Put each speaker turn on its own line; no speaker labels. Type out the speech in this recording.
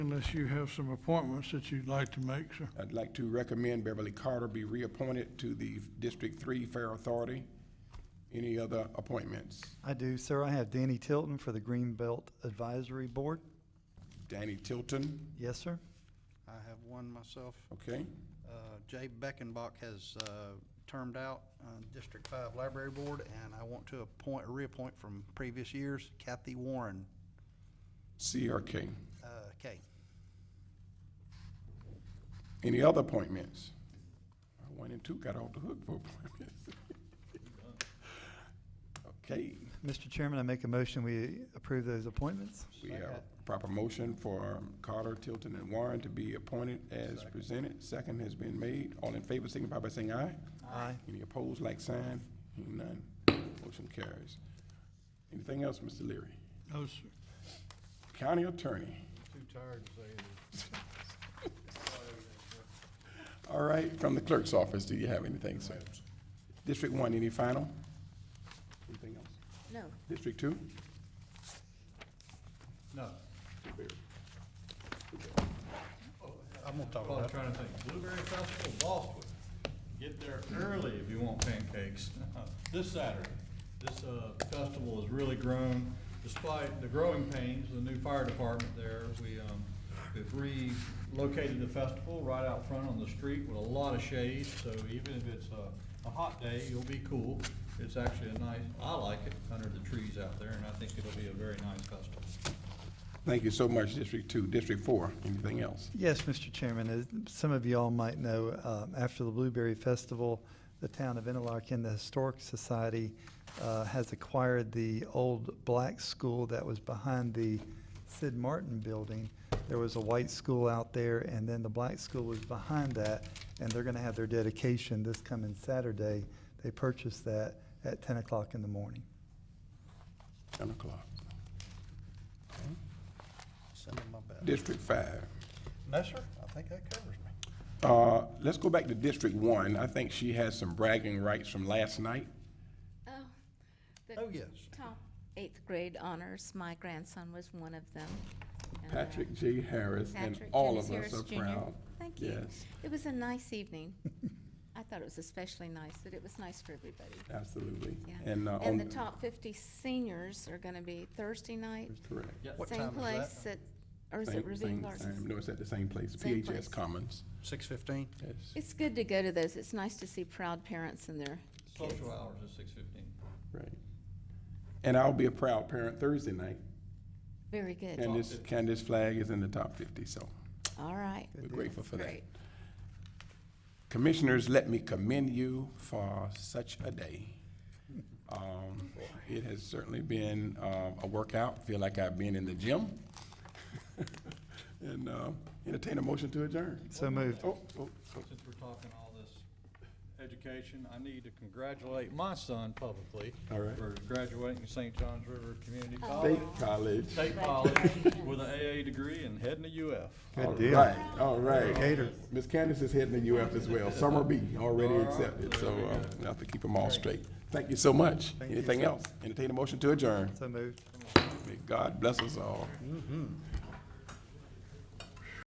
Unless you have some appointments that you'd like to make, sir.
I'd like to recommend Beverly Carter be reappointed to the District Three Fair Authority. Any other appointments?
I do, sir. I have Danny Tilton for the Greenbelt Advisory Board.
Danny Tilton,
Yes, sir.
I have one myself.
okay?
Uh, Jay Beckenbach has uh, termed out uh, District Five Library Board, and I want to appoint, reappoint from previous years Kathy Warren,
CRK.
uh, K.
Any other appointments? One and two got off the hook for appointments. Okay,
Mr. Chairman, I make a motion, we approve those appointments.
we have a proper motion for um, Carter, Tilton, and Warren to be appointed as presented. Second has been made. All in favor, signify by saying aye.
Aye.
Any opposed, like sign? Hearing none, motion carries. Anything else, Mr. Leary?
No, sir.
County Attorney.
Too tired to say anything.
All right, from the clerk's office, do you have anything, sir? District one, any final? Anything else?
No.
District two?
No.
Oh, I'm gonna talk
Well, I'm
about,
trying to think. Blueberry Festival, Boston. Get there early if you want pancakes. This Saturday, this, uh, festival has really grown despite the growing pains, of the new fire department there. We, um, we've relocated the festival right out front on the street with a lot of shade, so even if it's a, a hot day, you'll be cool. It's actually a nice, I like it, under the trees out there, and I think it'll be a very nice festival.
Thank you so much, District two. District four, anything else?
Yes, Mr. Chairman, as some of you all might know, um, after the Blueberry Festival, the town of Interlaken, the Historic Society, uh, has acquired the old black school that was behind the Sid Martin building. There was a white school out there, and then the black school was behind that, and they're gonna have their dedication this coming Saturday. They purchased that at ten o'clock in the morning.
Ten o'clock.
send them my best.
District five.
No, sir, I think that covers me.
Uh, let's go back to District one. I think she has some bragging rights from last night.
Oh, the
Oh, yes.
top eighth grade honors, my grandson was one of them. and, uh,
Patrick J. Harris and
Patrick
all
Dennis
of us
Harris
are
Jr..
proud.
Thank you.
Yes,
It was a nice evening. I thought it was especially nice, that it was nice for everybody.
absolutely.
Yeah.
And, uh,
And the
on-
top fifty seniors are gonna be Thursday night,
Correct.
What
same
time is that?
place at, or is
Same-
it Ravine
same-
Gardens?
same- No, it's at the same place,
Same
PHS
place.
Commons.
Six fifteen?
Yes,
It's good to go to those. It's nice to see proud parents and their kids.
Social hours is six fifteen.
right. And I'll be a proud parent Thursday night.
Very good.
Candace, Candace Flag is in the top fifty, so
All right.
we're grateful for that.
Great.
Commissioners, let me commend you for such a day. Um, it has certainly been, uh, a workout. Feel like I've been in the gym. And, uh, entertain a motion to adjourn.
So moved.
Oh, oh, oh.
since we're talking all this education, I need to congratulate my son publicly.
All right.
For graduating St. John's River Community College,
State College.
State College, with an AA degree and heading to UF.
All
Good deal.
right, all right.
Gator.
Miss Candace is heading to UF as well. Summer B already
All right,
accepted, so
there we
uh,
go.
we'll have to keep them all straight. Thank you so much.
Thank you,
Anything
sir.
else? Entertain a motion to adjourn.
So moved.
May God bless us all.